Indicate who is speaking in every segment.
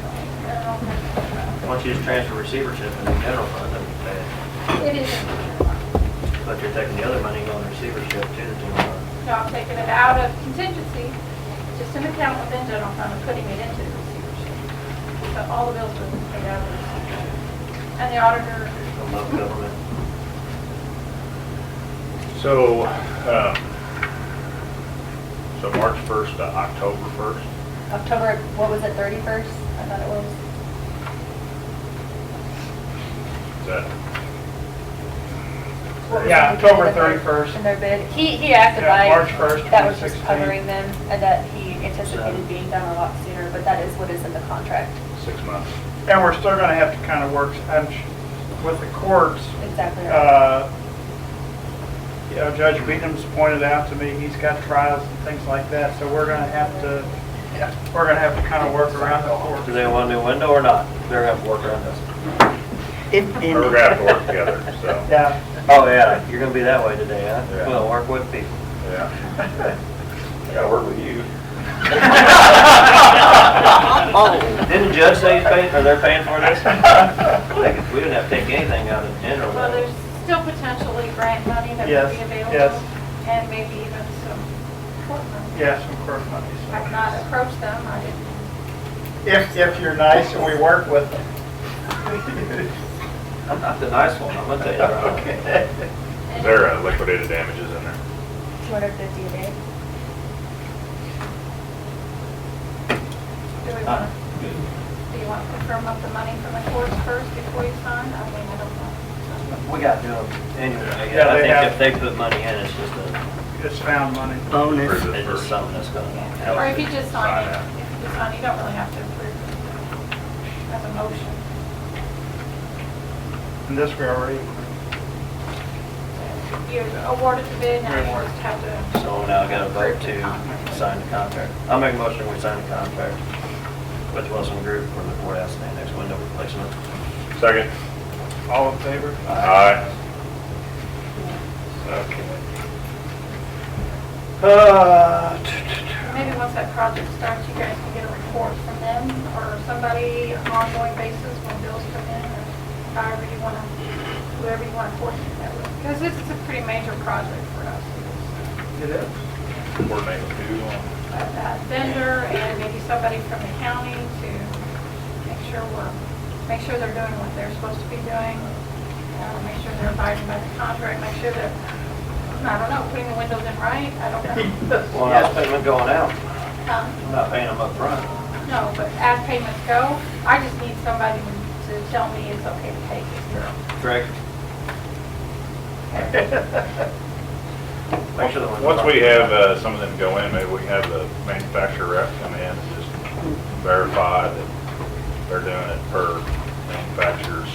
Speaker 1: definitely. Um,
Speaker 2: Why don't you just transfer receivership in the general fund, that'd be bad.
Speaker 1: It is in the general fund.
Speaker 2: But you're taking the other money and going to receivership to uh, the general fund.
Speaker 1: So I'm taking it out of contingency, just an account within general fund and putting it into the receivership. So all the bills were paid out of the receivership. And the auditor,
Speaker 2: I love government.
Speaker 3: So, um, so March 1st to October 1st?
Speaker 4: October, what was it, 31st? I thought it was.
Speaker 3: Is that,
Speaker 4: what was
Speaker 5: Yeah,
Speaker 4: it, the
Speaker 5: October
Speaker 4: end of their-
Speaker 5: 31st.
Speaker 4: In their bid. He, he acted
Speaker 5: Yeah,
Speaker 4: like.
Speaker 5: March 1st,
Speaker 4: That was just
Speaker 5: 2016.
Speaker 4: covering them and that he
Speaker 2: So-
Speaker 4: anticipated being done a lot sooner, but that is what is in the contract.
Speaker 3: six months?
Speaker 5: And we're still gonna have to kind of work, I'm sh- with the courts,
Speaker 4: Exactly. right.
Speaker 5: uh, you know, Judge Beadham's pointed out to me, he's got trials and things like that, so we're gonna have to, we're gonna have to kind of work around the
Speaker 2: Do
Speaker 5: courts.
Speaker 2: they want a new window or not? They're gonna have to work around this.
Speaker 6: If,
Speaker 3: We're gonna have to work together, so,
Speaker 5: Yeah,
Speaker 2: Oh, yeah, you're gonna be that way today, huh?
Speaker 3: Yeah.
Speaker 2: Well, work with people.
Speaker 3: yeah. I gotta work with you.
Speaker 2: Oh, Didn't the judge say he's paying, or they're paying for this? Like, We didn't have to take anything out of the general.
Speaker 1: well, there's still potentially grant money that
Speaker 5: Yes,
Speaker 1: would be
Speaker 5: yes.
Speaker 1: available. And maybe even some court money.
Speaker 5: yes, of course, money.
Speaker 1: I've
Speaker 5: so.
Speaker 1: not approached them, I didn't.
Speaker 5: If, if you're nice and we work with them.
Speaker 2: I'm not the nice one, I'm gonna tell you. that.
Speaker 5: Okay.
Speaker 1: and-
Speaker 3: Is there uh, liquidated damages in there?
Speaker 4: 250 a day.
Speaker 1: Do we
Speaker 2: Uh,
Speaker 1: want, do you want to firm up the money from the courts first before you sign? I mean, I don't know.
Speaker 2: We got to do them anyway.
Speaker 5: Yeah,
Speaker 2: I
Speaker 5: they
Speaker 2: think
Speaker 5: have-
Speaker 2: if they put money in, it's just a,
Speaker 5: It's found money.
Speaker 3: Or is
Speaker 6: bonus.
Speaker 3: it
Speaker 2: it's just
Speaker 3: first?
Speaker 2: something that's gonna help.
Speaker 1: Or if you just sign it,
Speaker 3: Sign
Speaker 1: if you just sign, it, you don't really have to approve it as a motion.
Speaker 5: And this we already,
Speaker 1: You awarded the bid, now you just have to,
Speaker 2: So now I got a vote to sign the contract. I'll make a motion, we sign the contract with Wilson Group for the courthouse and annex window replacement.
Speaker 3: Second?
Speaker 5: all in favor?
Speaker 3: Aye. Okay.
Speaker 5: Uh, t- t- t-
Speaker 1: maybe once that project starts, you guys can get a report from them or somebody on an ongoing basis when bills come in or however you want to, whoever you want to coordinate that with. Because this is a pretty major project for us.
Speaker 5: It is.
Speaker 3: Coordinate with who on-
Speaker 1: that vendor and maybe somebody from the county to make sure we're, make sure they're doing what they're supposed to be doing. uh, Make sure they're abiding by the contract, make sure they're, I don't know, putting the windows in right, I don't know.
Speaker 2: Well, that's payment going out.
Speaker 1: Um,
Speaker 2: I'm not paying them up front.
Speaker 1: No, but as payments go, I just need somebody to tell me it's okay to pay this girl.
Speaker 2: Correct. Make sure the ones.
Speaker 3: Once we have uh, some of them go in, maybe we have the manufacturer rep come in and just verify that they're doing it per manufacturer's.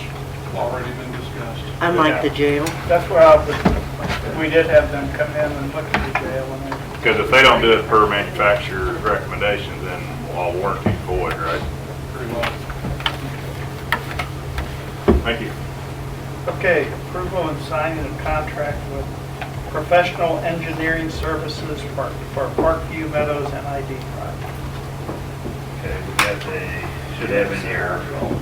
Speaker 7: already been discussed.
Speaker 6: Unlike the jail.
Speaker 5: That's where I was, we did have them come in and look at the jail and they
Speaker 3: Because if they don't do it per manufacturer's recommendations, then all warranty void, right?
Speaker 7: Pretty well.
Speaker 3: Thank you.
Speaker 5: Okay, approval and signing of contract with Professional Engineering Services Park for Parkview Meadows and ID project.
Speaker 8: Okay, we got the, should have in your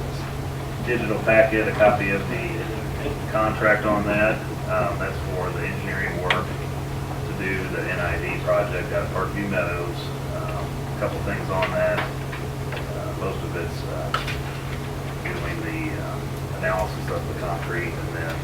Speaker 8: digital packet, a copy of the contract on that. Um, that's for the engineering work to do the NID project at Parkview Meadows. Um, a Couple things on that. Uh, Most of it's, uh, doing the um, analysis of the concrete and then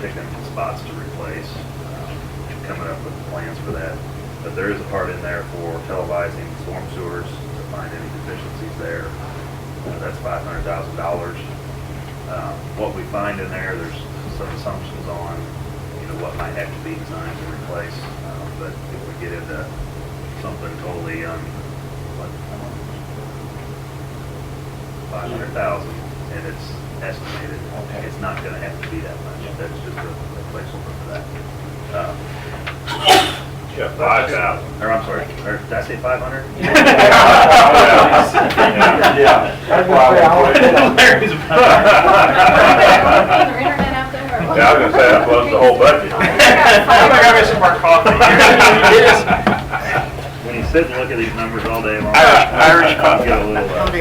Speaker 8: picking spots to replace, um, coming up with plans for that. But there is a part in there for televising storm sewers to find any deficiencies there. Uh, That's five hundred thousand dollars. Um, What we find in there, there's some assumptions on, you know, what might have to be designed to replace. um, But if we get into something totally, um, what, five hundred thousand, and it's estimated, it's not gonna have to be that much, that's just a a placeholder for that. Um,
Speaker 3: Yeah, five thousand.
Speaker 8: Or, I'm sorry, or did I say five hundred?
Speaker 1: Is there internet out there? or what?
Speaker 3: Yeah, I was gonna say, that blows the whole budget.
Speaker 5: I think I got some more coffee.
Speaker 8: When you sit and look at these numbers all day long.
Speaker 3: Irish- Irish
Speaker 8: you Get a little, uh,
Speaker 6: Oh, there